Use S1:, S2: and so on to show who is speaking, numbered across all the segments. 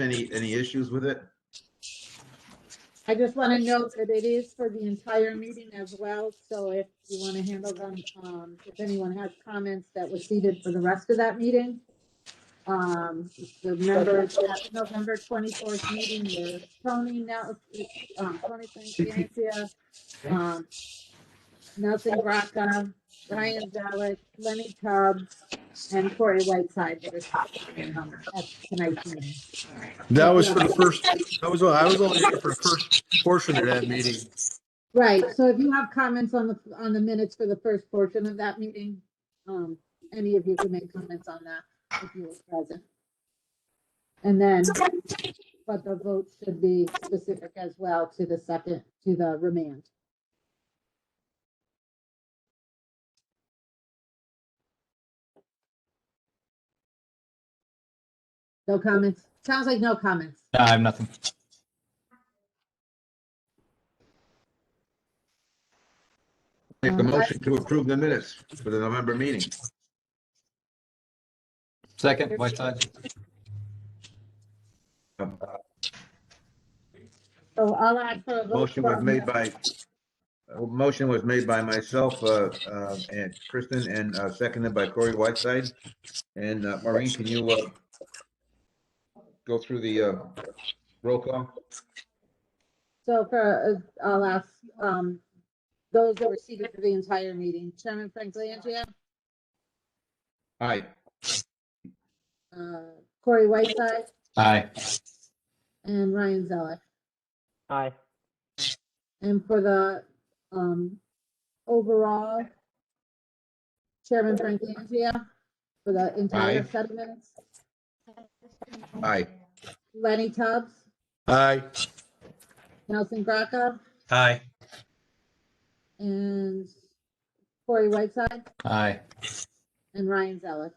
S1: Any, any issues with it?
S2: I just want to note that it is for the entire meeting as well, so if you want to handle them, um, if anyone has comments that were seated for the rest of that meeting. Um, remember that November twenty-fourth meeting, where Tony, now, um, Tony Francia, um, Nelson Braca, Ryan Zelik, Lenny Tubbs, and Corey Whiteside. were seated, um, At tonight's meeting.
S3: That was for the first, that was, I was only here for the first portion of that meeting.
S2: Right, so if you have comments on the, on the minutes for the first portion of that meeting, um, any of you can make comments on that if you were present. And then, but the vote should be specific as well to the second, to the remand. No comments? Sounds like no comments.
S4: No, I have nothing.
S1: Make a
S2: Um, I-
S1: motion to approve the minutes for the November meeting.
S4: Second, Whiteside.
S2: So I'll add for a vote.
S1: Motion was
S2: from-
S1: made by, a motion was made by myself, uh, uh, and Kristen, and, uh, seconded by Corey Whiteside. And, uh, Maureen, can you, uh, go through the, uh, roll call?
S2: So for, uh, I'll ask, um, those that were seated for the entire meeting, Chairman Frank Langria,
S1: Aye.
S2: uh, Corey Whiteside,
S4: Aye.
S2: and Ryan Zeller.
S5: Aye.
S2: And for the, um, overall, Chairman Frank Langria, for the entire
S1: Aye.
S2: set of minutes,
S1: Aye.
S2: Lenny Tubbs,
S3: Aye.
S2: Nelson Graca,
S4: Aye.
S2: and Corey Whiteside,
S4: Aye.
S2: and Ryan Zeller.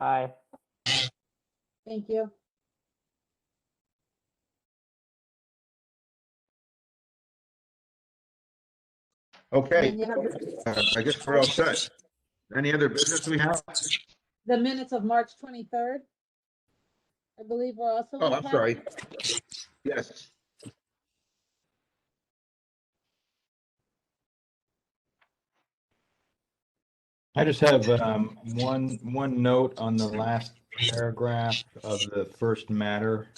S5: Aye.
S2: Thank you.
S1: Okay,
S2: And you have the-
S1: uh, I guess we're all set. Any other business we have?
S2: the minutes of March 23rd. I believe we're also.
S1: Oh, I'm sorry. Yes.
S4: I just have um, one, one note on the last paragraph of the first matter.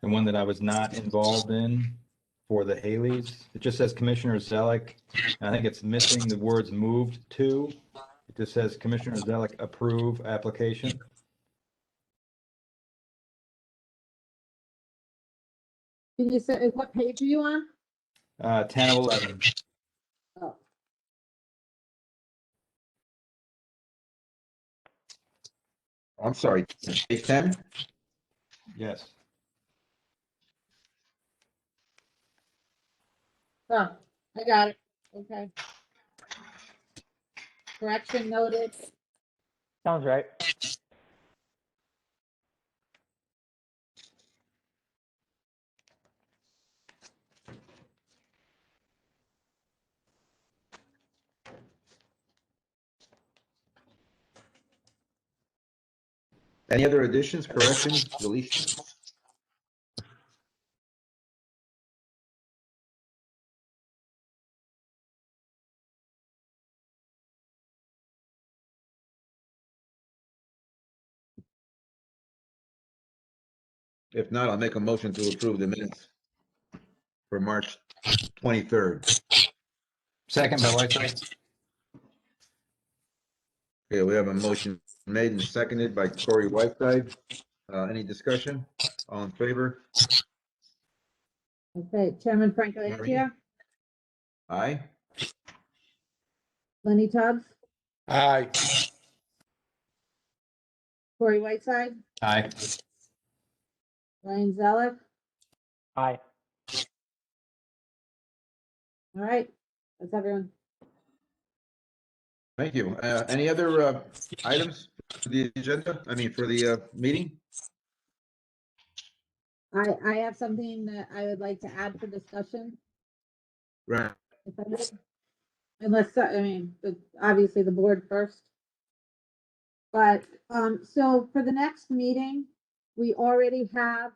S4: The one that I was not involved in for the Haley's. It just says Commissioner Zelik. and I think it's missing the words moved to. It just says Commissioner Zelik approve application.
S2: Can you say, what page are you on?
S4: Uh, 10 of 11.
S2: Oh,
S1: I'm sorry, page ten?
S4: Yes.
S2: oh, I got it. Okay. Correction noted.
S5: Sounds right.
S1: Any other additions, corrections, deletions? If not, I'll make a motion to approve the minutes for March 23rd.
S4: Second by Whiteside.
S1: Okay, we have a motion made and seconded by Corey Whiteside. Uh, Any discussion? All in favor?
S2: Okay, Chairman Franco Langria,
S1: Aye?
S2: Lenny Tubbs,
S3: Aye.
S2: Corey Whiteside,
S4: Aye.
S2: Ryan Zellick.
S5: Aye.
S2: All right, that's everyone.
S1: Thank you. Uh, Any other uh, items for the agenda? I mean, for the uh, meeting?
S2: I, I have something that I would like to add for discussion.
S1: Right.
S2: if I may. Unless, I mean, the- obviously the board first. But, um, so for the next meeting, we already have